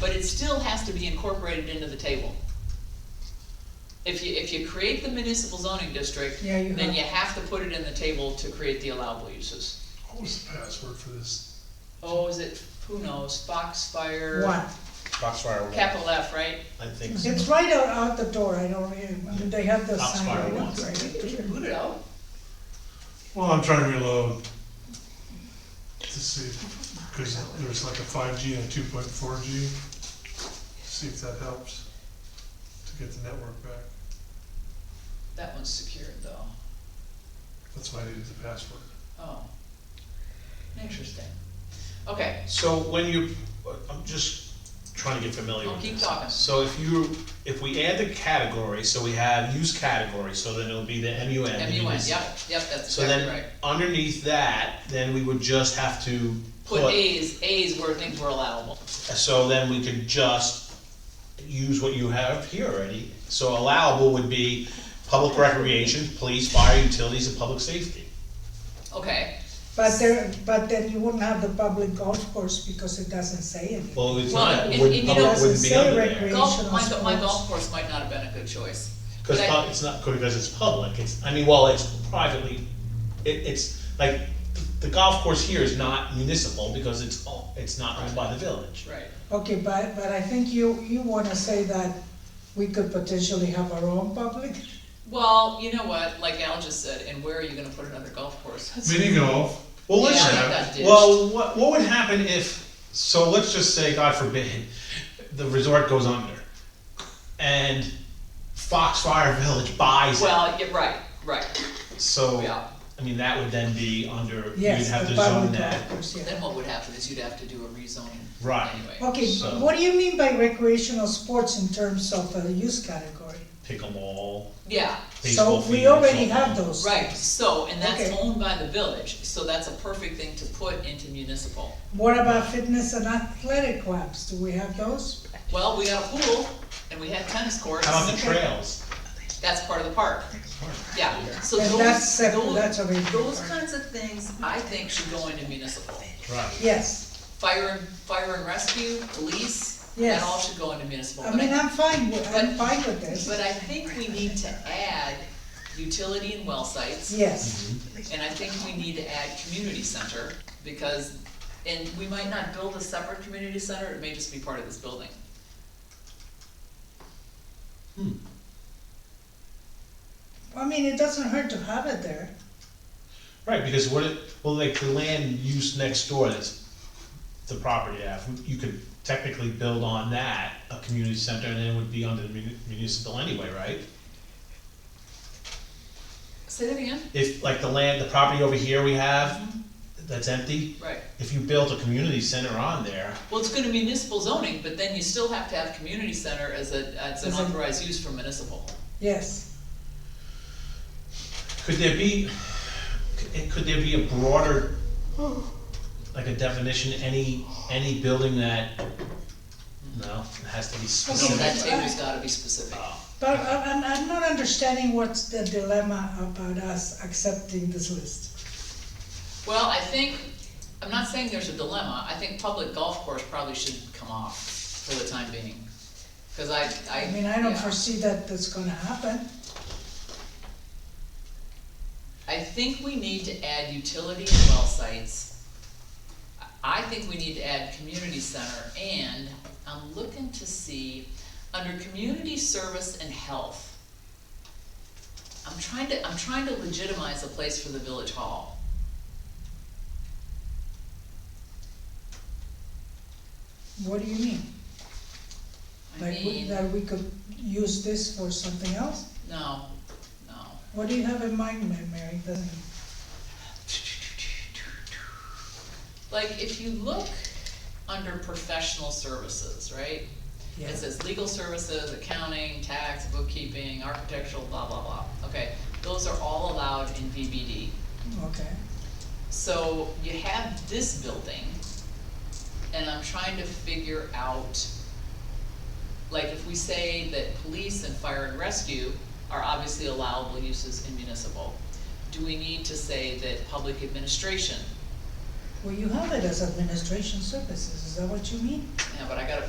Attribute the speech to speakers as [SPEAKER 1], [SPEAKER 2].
[SPEAKER 1] but it still has to be incorporated into the table. If you, if you create the municipal zoning district,
[SPEAKER 2] Yeah, you
[SPEAKER 1] then
[SPEAKER 2] have-
[SPEAKER 1] you have to put it in the table to create the allowable uses.
[SPEAKER 3] What was the password for this?
[SPEAKER 1] Oh, is it, who knows, Foxfire?
[SPEAKER 2] What?
[SPEAKER 4] Foxfire one.
[SPEAKER 1] Capital F, right?
[SPEAKER 4] I think so.
[SPEAKER 2] It's right out, out the door, I don't, even- did they have the
[SPEAKER 4] That's
[SPEAKER 2] sign
[SPEAKER 4] why I
[SPEAKER 2] right up
[SPEAKER 4] want
[SPEAKER 2] right
[SPEAKER 3] Put it.
[SPEAKER 1] No?
[SPEAKER 3] Well, I'm trying to reload to see, because there's like a five G and a two point four G. See if that helps to get the network back.
[SPEAKER 1] That one's secured though.
[SPEAKER 3] That's why I needed the password.
[SPEAKER 1] Oh. Interesting. Okay,
[SPEAKER 4] So when you, I'm just trying to get familiar
[SPEAKER 1] I'll
[SPEAKER 4] with this.
[SPEAKER 1] keep talking.
[SPEAKER 4] So if you, if we add the category, so we have use category, so then it'll be the MUN. the
[SPEAKER 1] MUN,
[SPEAKER 4] munis-
[SPEAKER 1] yep, yep, that's
[SPEAKER 4] So
[SPEAKER 1] exactly
[SPEAKER 4] then,
[SPEAKER 1] right.
[SPEAKER 4] underneath that, then we would just have to
[SPEAKER 1] Put
[SPEAKER 4] put,
[SPEAKER 1] As, As where things were allowable.
[SPEAKER 4] so then we could just use what you have here already. So allowable would be public recreation, police, fire, utilities, and public safety.
[SPEAKER 1] Okay,
[SPEAKER 2] But there, but then you wouldn't have the public golf course because it doesn't say anything.
[SPEAKER 4] Well, it's
[SPEAKER 1] Well,
[SPEAKER 4] not,
[SPEAKER 1] and- and
[SPEAKER 4] wouldn't,
[SPEAKER 1] you
[SPEAKER 4] public
[SPEAKER 1] know-
[SPEAKER 4] wouldn't be
[SPEAKER 2] Doesn't say
[SPEAKER 4] under there.
[SPEAKER 2] recre-
[SPEAKER 1] golf, my,
[SPEAKER 2] Recreational
[SPEAKER 1] my
[SPEAKER 2] sports.
[SPEAKER 1] golf course might not have been a good choice.
[SPEAKER 4] Cause
[SPEAKER 1] But I-
[SPEAKER 4] pub- it's not, because it's public, it's, I mean, well, it's privately, it, it's, like, the golf course here is not municipal because it's, all- it's not owned by the village.
[SPEAKER 1] Right,
[SPEAKER 2] Okay, but, but I think you, you wanna say that we could potentially have our own public?
[SPEAKER 1] well, you know what, like Al just said, and where are you gonna put another golf course?
[SPEAKER 3] Mini golf,
[SPEAKER 4] Well,
[SPEAKER 1] Yeah,
[SPEAKER 4] let's,
[SPEAKER 1] I got that
[SPEAKER 4] just-
[SPEAKER 1] ditched.
[SPEAKER 4] well, what, what would happen if, so let's just say, God forbid, the resort goes under, and Foxfire Village buys it,
[SPEAKER 1] Well, yeah, right, right,
[SPEAKER 4] so,
[SPEAKER 1] yeah.
[SPEAKER 4] I mean, that would then be under, you'd
[SPEAKER 2] Yes,
[SPEAKER 4] have
[SPEAKER 2] the
[SPEAKER 4] to
[SPEAKER 2] public
[SPEAKER 4] zone
[SPEAKER 2] golf
[SPEAKER 4] that,
[SPEAKER 2] course,
[SPEAKER 1] Then
[SPEAKER 2] yeah.
[SPEAKER 1] what would happen is you'd have to do a rezoning
[SPEAKER 4] Right.
[SPEAKER 1] anyway.
[SPEAKER 2] Okay,
[SPEAKER 4] So-
[SPEAKER 2] what do you mean by recreational sports in terms of the use category?
[SPEAKER 4] pickleball,
[SPEAKER 1] Yeah,
[SPEAKER 4] baseball
[SPEAKER 2] So
[SPEAKER 4] field.
[SPEAKER 2] we already
[SPEAKER 4] softball.
[SPEAKER 2] have those.
[SPEAKER 1] right, so, and that's
[SPEAKER 2] Okay.
[SPEAKER 1] owned by the village, so that's a perfect thing to put into municipal.
[SPEAKER 2] What about fitness and athletic clubs? Do we have those?
[SPEAKER 1] Well, we got a pool, and we had tennis courts,
[SPEAKER 4] How about the trails?
[SPEAKER 1] that's part of the park. Yeah, so
[SPEAKER 2] And
[SPEAKER 1] those,
[SPEAKER 2] that's separate,
[SPEAKER 1] those,
[SPEAKER 2] that's already.
[SPEAKER 1] those kinds of things, I think should go into municipal.
[SPEAKER 4] Right.
[SPEAKER 2] Yes,
[SPEAKER 1] Fire and, fire and rescue, police, that
[SPEAKER 2] Yes.
[SPEAKER 1] all should go into municipal.
[SPEAKER 2] I
[SPEAKER 1] But
[SPEAKER 2] mean, I'm fine, with- I'm
[SPEAKER 1] but-
[SPEAKER 2] fine with this.
[SPEAKER 1] But I think we need to add utility and well sites,
[SPEAKER 2] Yes,
[SPEAKER 1] and I think we need to add community center, because, and we might not build a separate community center, it may just be part of this building.
[SPEAKER 2] I mean, it doesn't hurt to have it there.
[SPEAKER 4] Right, because what it, well, like the land use next door that's the property half, you could technically build on that, a community center, and then it would be under the muni- municipal anyway, right?
[SPEAKER 1] Say that again?
[SPEAKER 4] If, like the land, the property over here we have, that's empty,
[SPEAKER 1] Right.
[SPEAKER 4] if you built a community center on there,
[SPEAKER 1] Well, it's gonna be municipal zoning, but then you still have to have community center as a, as an
[SPEAKER 2] As a-
[SPEAKER 1] authorized use for municipal.
[SPEAKER 2] Yes,
[SPEAKER 4] could there be, could- could there be a broader, like a definition, any, any building that, no, it has to be
[SPEAKER 1] So
[SPEAKER 2] Okay,
[SPEAKER 4] specific.
[SPEAKER 1] that table's gotta be specific.
[SPEAKER 4] Oh,
[SPEAKER 2] but I- I'm, I'm not understanding what's the dilemma about us accepting this list.
[SPEAKER 1] Well, I think, I'm not saying there's a dilemma, I think public golf course probably should come off for the time being. Cause I, I.
[SPEAKER 2] I mean, I don't
[SPEAKER 1] yeah.
[SPEAKER 2] foresee that that's gonna happen.
[SPEAKER 1] I think we need to add utility and well sites. I I think we need to add community center and I'm looking to see, under community service and health. I'm trying to, I'm trying to legitimize a place for the village hall.
[SPEAKER 2] What do you mean?
[SPEAKER 1] I
[SPEAKER 2] Like, we-
[SPEAKER 1] mean,
[SPEAKER 2] that we could use this for something else?
[SPEAKER 1] no, no.
[SPEAKER 2] What do you have in mind, Ma- Mary? Doesn't-
[SPEAKER 1] Like, if you look under professional services, right?
[SPEAKER 2] Yeah.
[SPEAKER 1] It says legal services, accounting, tax, bookkeeping, architectural, blah, blah, blah. Okay, those are all allowed in VBD.
[SPEAKER 2] Okay,
[SPEAKER 1] So you have this building, and I'm trying to figure out, like, if we say that police and fire and rescue are obviously allowable uses in municipal, do we need to say that public administration,
[SPEAKER 2] well, you have it as administration services, is that what you mean?
[SPEAKER 1] yeah, but I gotta